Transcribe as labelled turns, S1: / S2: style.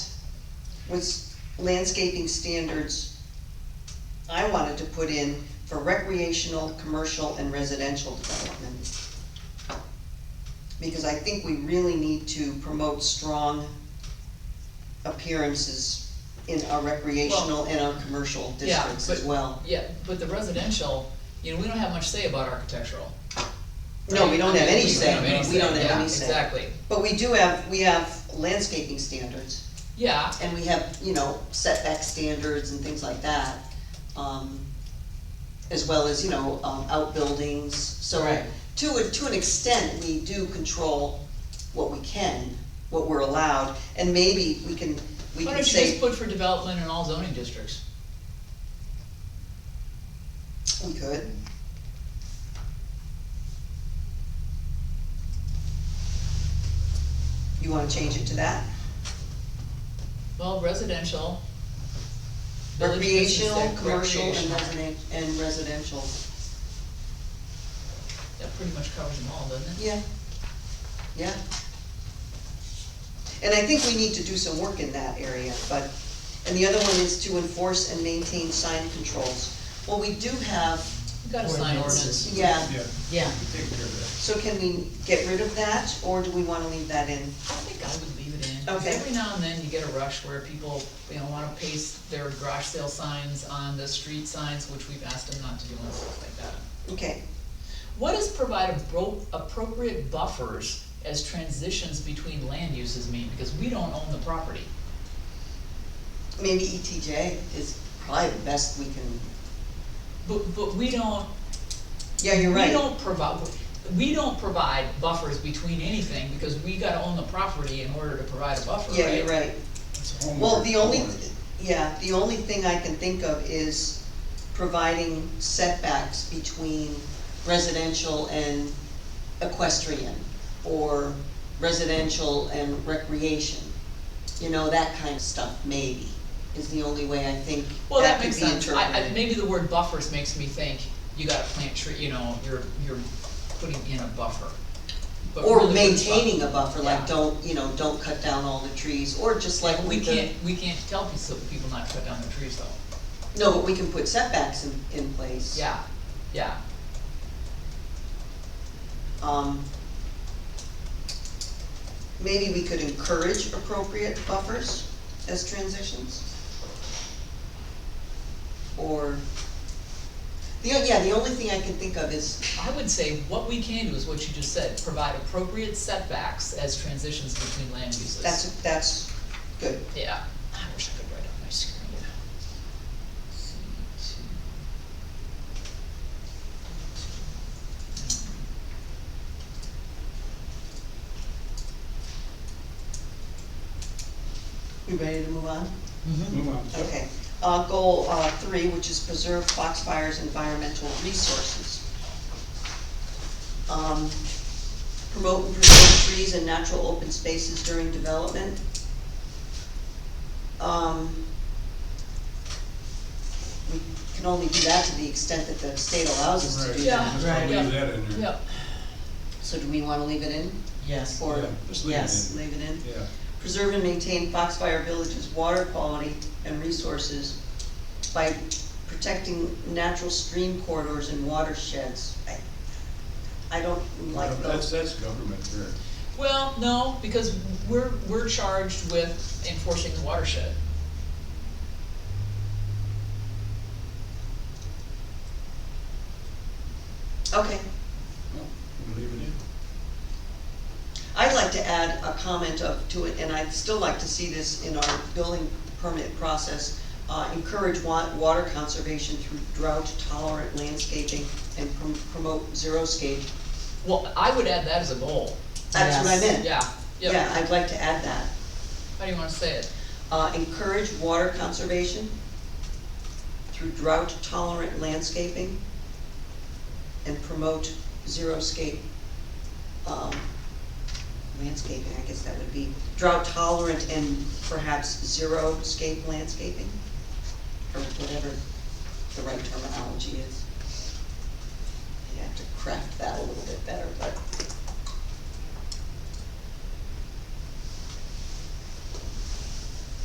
S1: was landscaping standards I wanted to put in for recreational, commercial, and residential development. Because I think we really need to promote strong appearances in our recreational and our commercial
S2: yeah,
S1: districts as
S2: but-
S1: well.
S2: Yeah, but the residential, you know, we don't have much say about architectural.
S1: No, we don't have any
S2: We
S1: say, we don't have
S2: yeah,
S1: any say.
S2: Exactly,
S1: But we do have, we have landscaping standards.
S2: yeah,
S1: and we have, you know, setback standards and things like that. um, As well as, you know, um, outbuildings, so
S2: Right.
S1: to, a- to an extent, we do control what we can, what we're allowed, and maybe we can, we
S2: why
S1: can
S2: don't you just
S1: say,
S2: put for development in all zoning districts?
S1: we could. You wanna change it to that?
S2: Well, residential. village business
S1: Recreational,
S2: district,
S1: commercial, and
S2: recreational.
S1: resident, and residential,
S2: That pretty much covers them all, doesn't it?
S1: Yeah, yeah. And I think we need to do some work in that area, but, and the other one is to enforce and maintain sign controls. Well, we do have,
S2: We've got a sign
S3: Ordinances.
S2: ordinance.
S1: yeah,
S3: Yeah,
S4: Yeah,
S3: we take care of
S1: so can we get rid of that, or do we wanna leave that in?
S2: I think I would leave it in. 'cause
S1: Okay.
S2: Every now and then you get a rush where people, you know, wanna paste their garage sale signs on the street signs, which we've asked them not to do and stuff like that.
S1: Okay,
S2: What does provide appro- appropriate buffers as transitions between land uses mean? Because we don't own the property.
S1: maybe ETJ is probably the best we can,
S2: But, but we don't,
S1: yeah, you're
S2: We
S1: right.
S2: don't provide, we don't provide buffers between anything, because we gotta own the property in order to provide a buffer, right?
S1: Yeah, you're right.
S3: that. It's homework.
S1: Well, the only,
S3: homework.
S1: yeah, the only thing I can think of is providing setbacks between residential and equestrian, or residential and recreation. You know, that kind of stuff, maybe, is the only way I think
S2: Well, that
S1: that could
S2: makes
S1: be
S2: sense,
S1: interpreted.
S2: I, I, maybe the word buffers makes me think, you gotta plant tree, you know, you're, you're putting in a buffer. But really
S1: Or
S2: what the
S1: maintaining a
S2: buff-
S1: buffer,
S2: Yeah.
S1: like, don't, you know, don't cut down all the trees, or just like
S2: We
S1: with the-
S2: can't, we can't tell people, people not to cut down their trees though,
S1: No, but we can put setbacks in, in place.
S2: yeah, yeah,
S1: um, maybe we could encourage appropriate buffers as transitions? Or, the, yeah, the only thing I can think of is,
S2: I would say what we can do is what you just said, provide appropriate setbacks as transitions between land uses.
S1: that's, that's good.
S2: Yeah, I wish I could write on my screen. C two.
S1: You ready to move on?
S4: Mm-hmm.
S3: Move on.
S1: Okay, uh, goal, uh, three, which is preserve Foxfire's environmental resources. Um, promote and preserve trees and natural open spaces during development. Um, we can only do that to the extent that the state allows us to
S3: Right,
S1: do
S2: Yeah.
S1: that.
S3: just I'll
S2: Right.
S3: leave that in there.
S2: Yep,
S1: So do we wanna leave it in,
S4: yes,
S1: or
S3: Yeah, just leave it
S4: Yes.
S1: leave it in?
S3: in. Yeah,
S1: preserve and maintain Foxfire Village's water quality and resources by protecting natural stream corridors and watersheds. I- I don't like
S3: Gov- that's,
S1: those.
S3: that's government there.
S2: well, no, because we're, we're charged with enforcing the watershed.
S1: Okay,
S3: No, we'll leave it in.
S1: I'd like to add a comment of, to it, and I'd still like to see this in our building permit process. Uh, encourage wa- water conservation through drought tolerant landscaping and prom- promote zeroscape.
S2: Well, I would add that as a goal,
S1: That's what I
S4: Yes.
S1: meant.
S2: yeah,
S1: Yeah,
S2: yeah,
S1: I'd like to add that.
S2: how do you wanna say it?
S1: Uh, encourage water conservation through drought tolerant landscaping and promote zero-scape, um, landscaping, I guess that would be drought tolerant and perhaps zero-scape landscaping? Or whatever the right terminology is. I'd have to craft that a little bit better, but